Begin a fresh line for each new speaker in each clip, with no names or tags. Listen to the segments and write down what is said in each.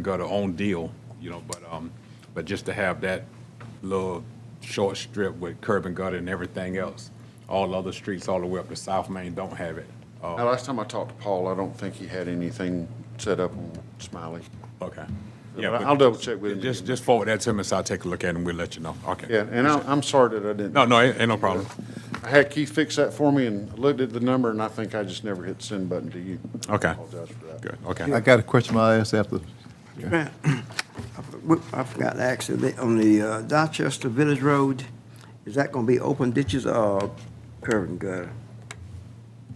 got her own deal, you know, but, um, but just to have that little short strip with curb and gutter and everything else. All other streets all the way up to South Main don't have it. Uh,
Now, last time I talked to Paul, I don't think he had anything set up on Smiley.
okay. Yeah,
But
but
I'll double check with him.
Just, just forward that to me, so I'll take a look at it and we'll let you know. Okay.
Yeah, and I'm, I'm sorry that I
No,
didn't.
no, ain't, ain't no problem.
I had Keith fix that for me and looked at the number and I think I just never hit send button to you.
Okay.
Apologize for that.
Good, okay.
I got a question I asked after,
Grant, I forgot to ask, you, the- on the uh, Dorchester Village Road, is that gonna be open ditches or curb and gutter?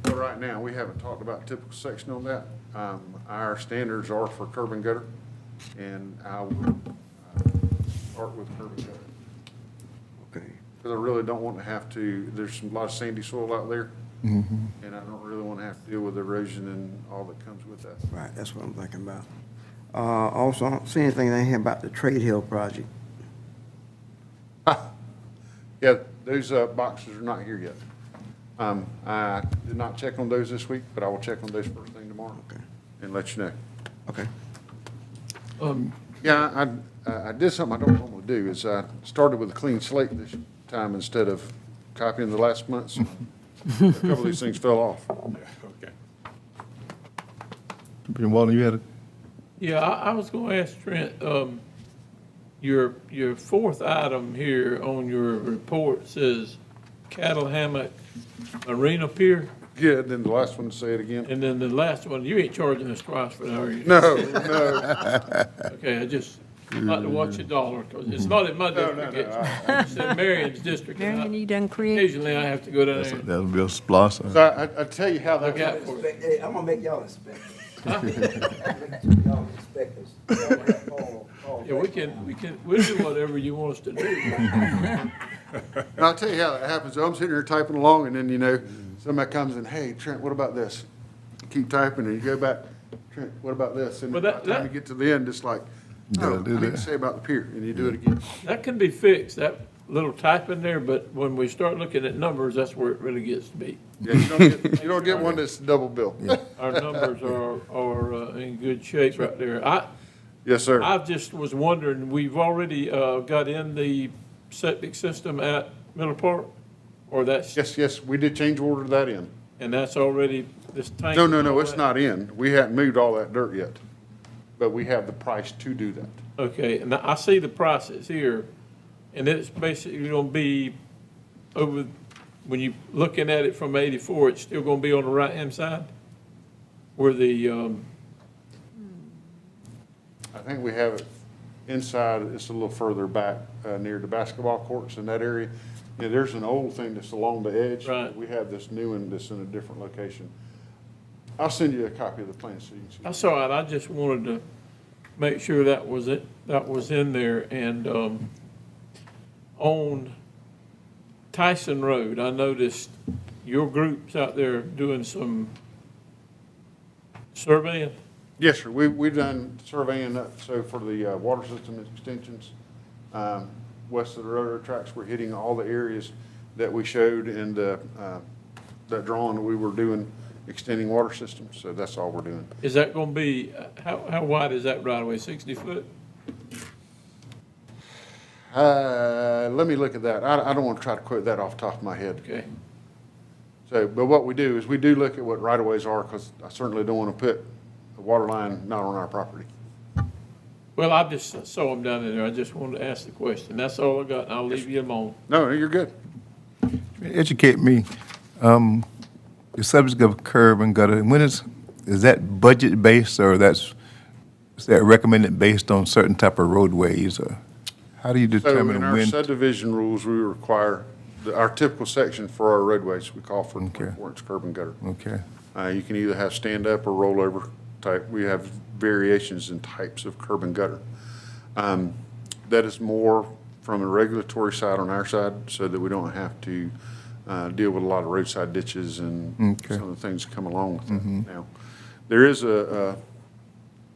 So right now, we haven't talked about typical section on that. Um, our standards are for curb and gutter and I will uh, start with curb and gutter.
Okay.
Because I really don't want to have to, there's a lot of sandy soil out there. And I don't really want to have to deal with erosion and all that comes with that.
Right, that's what I'm thinking about. Uh, also, I don't see anything in here about the Trade Hill project.
Yeah, those uh, boxes are not here yet. Um, I did not check on those this week, but I will check on those first thing tomorrow
Okay.
and let you know.
Okay.
Yeah, I- I, I did something I don't normally do, is I started with a clean slate this time instead of copying the last month's. A couple of these things fell off.
Okay.
Commissioner Walden, you had a,
Yeah, I, I was gonna ask Trent, um, your, your fourth item here on your report says cattle hammock arena pier,
Yeah, then the last one, say it again.
and then the last one, you ain't charging us twice for that, are you?
No, no,
Okay, I just like to watch a dollar, 'cause it's not in my district, it's in Marion's district. and I-
Marion, you done created,
Occasionally, I have to go down there and
that would be a splosh.
So I, I- I tell you how that
look out
got,
for it.
Hey, I'm gonna make y'all inspectors. Y'all inspectors.
Yeah, we can, we can, we'll do whatever you want us to do.
and I'll tell you how that happens. I'm sitting here typing along and then, you know, somebody comes in, hey, Trent, what about this? Keep typing and you go back, Trent, what about this? And by
Well,
the
that-
time you get to the end, it's like,
Gotta
no, I
do
need to
that.
say about the pier, and you do it again.
That can be fixed, that little type in there, but when we start looking at numbers, that's where it really gets to be.
Yeah, You don't get- you don't get one that's double bill.
Our numbers are, are uh, in good shape right there. I,
Yes, sir.
I just was wondering, we've already uh, got in the septic system at Miller Park? Or that's,
Yes, yes, we did change order that in.
and that's already, this tank?
No, no, no, it's not in. We hadn't moved all that dirt yet, but we have the price to do that.
Okay, and I see the prices here, and it's basically gonna be over, when you looking at it from eighty-four, it's still gonna be on the right-hand side? Where the, um,
I think we have it inside, it's a little further back, uh, near the basketball courts in that area. Yeah, there's an old thing that's along the edge.
Right.
We have this new one that's in a different location. I'll send you a copy of the plan so you can see.
That's all right, I just wanted to make sure that was it, that was in there, and, um, on Tyson Road, I noticed your groups out there doing some surveying.
Yes, sir. We, we've done surveying up, so for the uh, water system extensions, um, west of the railroad tracks, we're hitting all the areas that we showed in the, uh, that drawing that we were doing, extending water systems, so that's all we're doing.
Is that gonna be, how, how wide is that right away, sixty foot?
Uh, let me look at that. I, I don't want to try to quote that off the top of my head.
Okay,
So, but what we do is we do look at what right-of-ways are, because I certainly don't want to put a water line not on our property.
well, I just saw them down in there, I just wanted to ask the question, that's all I got, and I'll leave you alone.
No, you're good.
Educate me, um, the subject of curb and gutter, when is, is that budget based or that's, is that recommended based on certain type of roadways or? How do you
So in
determine
our
when?
subdivision rules, we require, the- our typical section for our roadways, we call for
Okay.
24-inch curb and gutter.
Okay,
Uh, You can either have stand-up or rollover type. We have variations in types of curb and gutter. Um, That is more from a regulatory side on our side, so that we don't have to uh, deal with a lot of roadside ditches and
Okay.
some of the things that come along with that now. There is a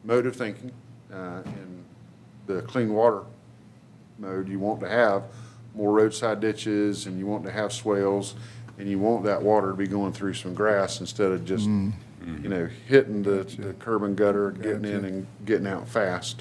a mode of thinking uh, in the clean water mode, you want to have more roadside ditches and you want to have swales and you want that water to be going through some grass instead of just, you know, hitting the, the curb and gutter, getting in and getting out fast.